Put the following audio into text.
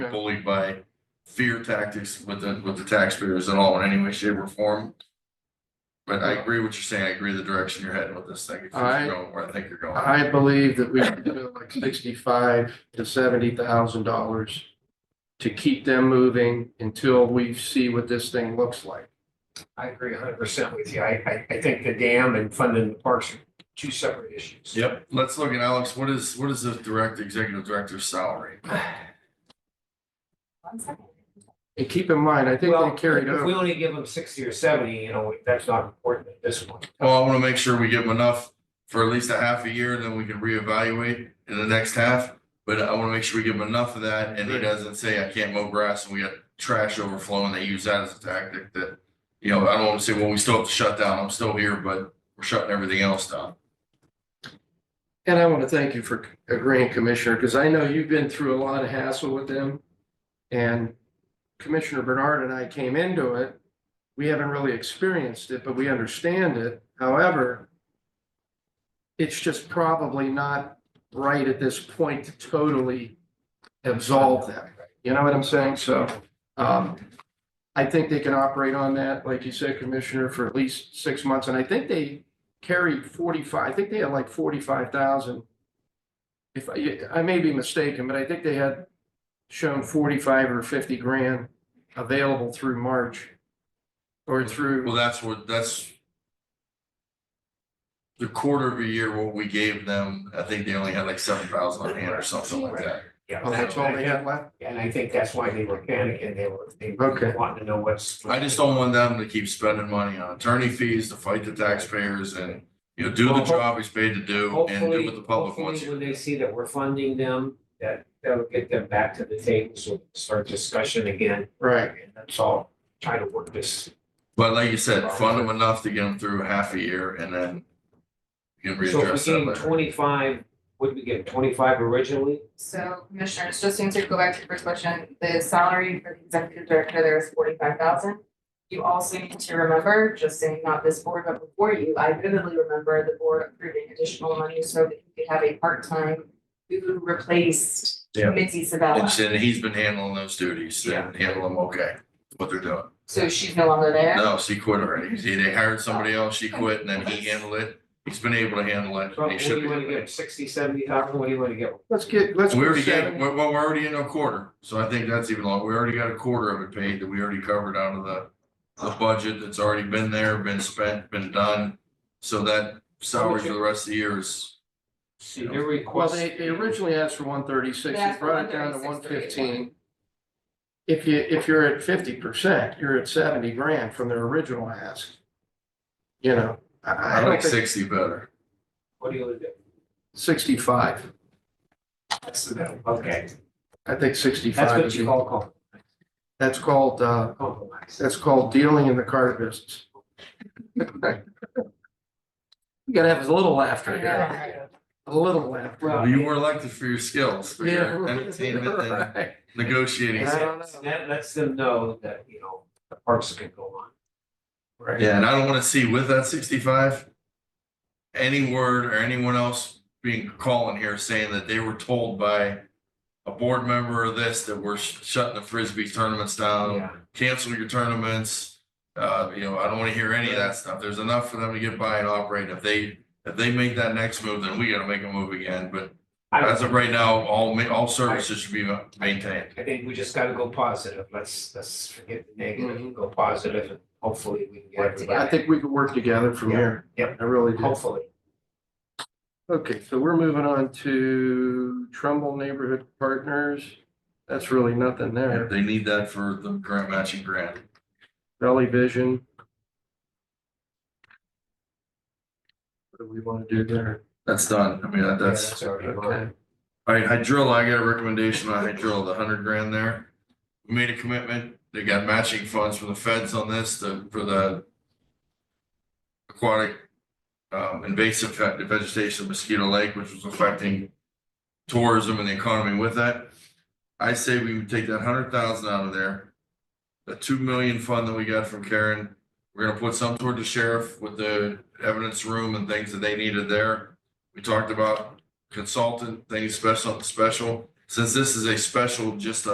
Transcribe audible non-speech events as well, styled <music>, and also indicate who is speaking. Speaker 1: bullied by fear tactics with the, with the taxpayers at all in any way, shape or form. But I agree what you're saying. I agree the direction you're heading with this thing. If
Speaker 2: I-
Speaker 1: you're going Where I think you're going.
Speaker 2: I believe that we should do like sixty-five to seventy thousand dollars to keep them moving until we see what this thing looks like.
Speaker 3: I agree hundred percent with you. I, I, I think the dam and funding the parks are two separate issues.
Speaker 1: Yep, let's look at Alex. What is, what is the direct, executive director's salary?
Speaker 2: And keep in mind, I think
Speaker 3: Well,
Speaker 2: they carried
Speaker 3: If we
Speaker 2: over.
Speaker 3: only give them sixty or seventy, you know, that's not important at this point.
Speaker 1: Well, Oh, I wanna make sure we give them enough for at least a half a year, and then we can reevaluate in the next half. But I wanna make sure we give him enough of that, and he doesn't say, I can't mow grass, and we got trash overflowing, they use that as a tactic that. You know, I don't wanna say, well, we still have to shut down, I'm still here, but we're shutting everything else down.
Speaker 2: And I want to thank you for agreeing, Commissioner, because I know you've been through a lot of hassle with them. And Commissioner Bernard and I came into it. We haven't really experienced it, but we understand it. However, it's just probably not right at this point to totally absolve them. You know what I'm saying? So um, I think they can operate on that, like you said, Commissioner, for at least six months. And I think they carried forty-five, I think they had like forty-five thousand. If I, I may be mistaken, but I think they had shown forty-five or fifty grand available through March. Or
Speaker 1: Well,
Speaker 2: through,
Speaker 1: that's what, that's. The quarter of a year, what we gave them, I think they only had like seven thousand on hand or something like that.
Speaker 3: Yeah.
Speaker 2: oh, that's all they had left?
Speaker 3: And I think that's why they were panicking. They were, they
Speaker 2: Okay.
Speaker 3: were wanting to know what's.
Speaker 1: I just don't want them to keep spending money on attorney fees to fight the taxpayers and, you know, do the
Speaker 3: Well, ho-
Speaker 1: job he's paid to do and do
Speaker 3: Hopefully,
Speaker 1: what the public wants.
Speaker 3: hopefully when they see that we're funding them, that, that'll get them back to the table, so we can start discussion again.
Speaker 2: Right,
Speaker 3: And that's all, try to work this.
Speaker 1: But like you said, fund them enough to get them through half a year and then you can
Speaker 3: So
Speaker 1: readdress
Speaker 3: if we
Speaker 1: that
Speaker 3: gave
Speaker 1: later.
Speaker 3: twenty-five, what did we give, twenty-five originally?
Speaker 4: So commissioners, just to answer, go back to your first question, the salary for the executive director there is forty five thousand. You also need to remember, just saying not this board, but before you, I vividly remember the board approving additional money so that you could have a part-time who replaced
Speaker 1: Yeah.
Speaker 4: Mitzi
Speaker 1: And
Speaker 4: Sabella.
Speaker 1: she- and he's been handling those duties and handling them okay, what they're doing.
Speaker 4: So she's no longer there.
Speaker 1: No, she quit already. See, they hired somebody else, she quit and then he handled it. He's been able to handle it
Speaker 3: So
Speaker 1: and
Speaker 3: What
Speaker 1: he
Speaker 3: do
Speaker 1: should
Speaker 3: you wanna
Speaker 1: be.
Speaker 3: give, sixty, seventy thousand, what do you wanna give?
Speaker 2: let's get, let's.
Speaker 1: We
Speaker 2: go
Speaker 1: already gave,
Speaker 2: seven.
Speaker 1: well, we're already in a quarter, so I think that's even long. We already got a quarter of it paid that we already covered out of the. The budget that's already been there, been spent, been done, so that salary for the rest of the year is.
Speaker 3: See, their
Speaker 2: Well,
Speaker 3: request.
Speaker 2: they, they originally asked for one thirty-six, they
Speaker 4: That's for
Speaker 2: brought it down to one
Speaker 4: 136,
Speaker 2: fifteen. If you, if you're at fifty percent, you're at seventy grand from their original ask. You know, I, I
Speaker 1: I
Speaker 2: don't
Speaker 1: like
Speaker 2: think
Speaker 1: sixty better.
Speaker 3: What do you wanna do?
Speaker 2: sixty-five,
Speaker 3: Okay,
Speaker 2: I think
Speaker 3: that's
Speaker 2: sixty-five
Speaker 3: what
Speaker 2: is,
Speaker 3: you call com-
Speaker 2: that's called, uh,
Speaker 3: compromise.
Speaker 2: that's called dealing in the card business. <laughs> You gotta have a little laughter here,
Speaker 4: Yeah.
Speaker 2: a little laughter.
Speaker 3: Well,
Speaker 1: You were elected for your skills, for
Speaker 2: <laughs> Yeah.
Speaker 1: your entertainment and
Speaker 2: right.
Speaker 1: negotiating.
Speaker 2: I
Speaker 3: That-
Speaker 2: don't know.
Speaker 3: That lets them know that, you know, the parks can go on.
Speaker 2: Right.
Speaker 1: Yeah, and I don't wanna see with that sixty-five. Any word or anyone else being calling here saying that they were told by. A board member or this that we're sh- shutting the frisbee tournaments down,
Speaker 3: Yeah.
Speaker 1: cancel your tournaments. Uh, you know, I don't wanna hear any of that stuff. There's enough for them to get by and operate. If they, if they make that next move, then we gotta make a move again, but.
Speaker 3: I
Speaker 1: As of right now, all ma- all services should be ma- maintained.
Speaker 3: I think we just gotta go positive. Let's, let's forget the negative and go positive and hopefully we can get
Speaker 4: Work
Speaker 2: I
Speaker 3: everybody.
Speaker 2: think we could work together from
Speaker 3: Yeah.
Speaker 2: here.
Speaker 3: Yep.
Speaker 2: I really do.
Speaker 3: Hopefully.
Speaker 2: Okay, so we're moving on to Trumbull Neighborhood Partners. That's really nothing
Speaker 1: If
Speaker 2: there.
Speaker 1: They need that for the grant matching grant.
Speaker 2: Valley Vision. What do we want to do there?
Speaker 1: That's done. I mean, that-
Speaker 3: Yeah,
Speaker 1: that's.
Speaker 3: That's already
Speaker 2: Okay,
Speaker 3: mine.
Speaker 1: All right, Hydrilla, I got a recommendation on Hydrilla, the hundred grand there. We made a commitment, they got matching funds from the feds on this, the, for the aquatic um, invasive ve- vegetation of Mosquito Lake, which was affecting tourism and the economy with that. I say we would take that hundred thousand out of there. The two million fund that we got from Karen, we're gonna put some toward the sheriff with the evidence room and things that they needed there. We talked about consultant thing, special, special, since this is a special, just a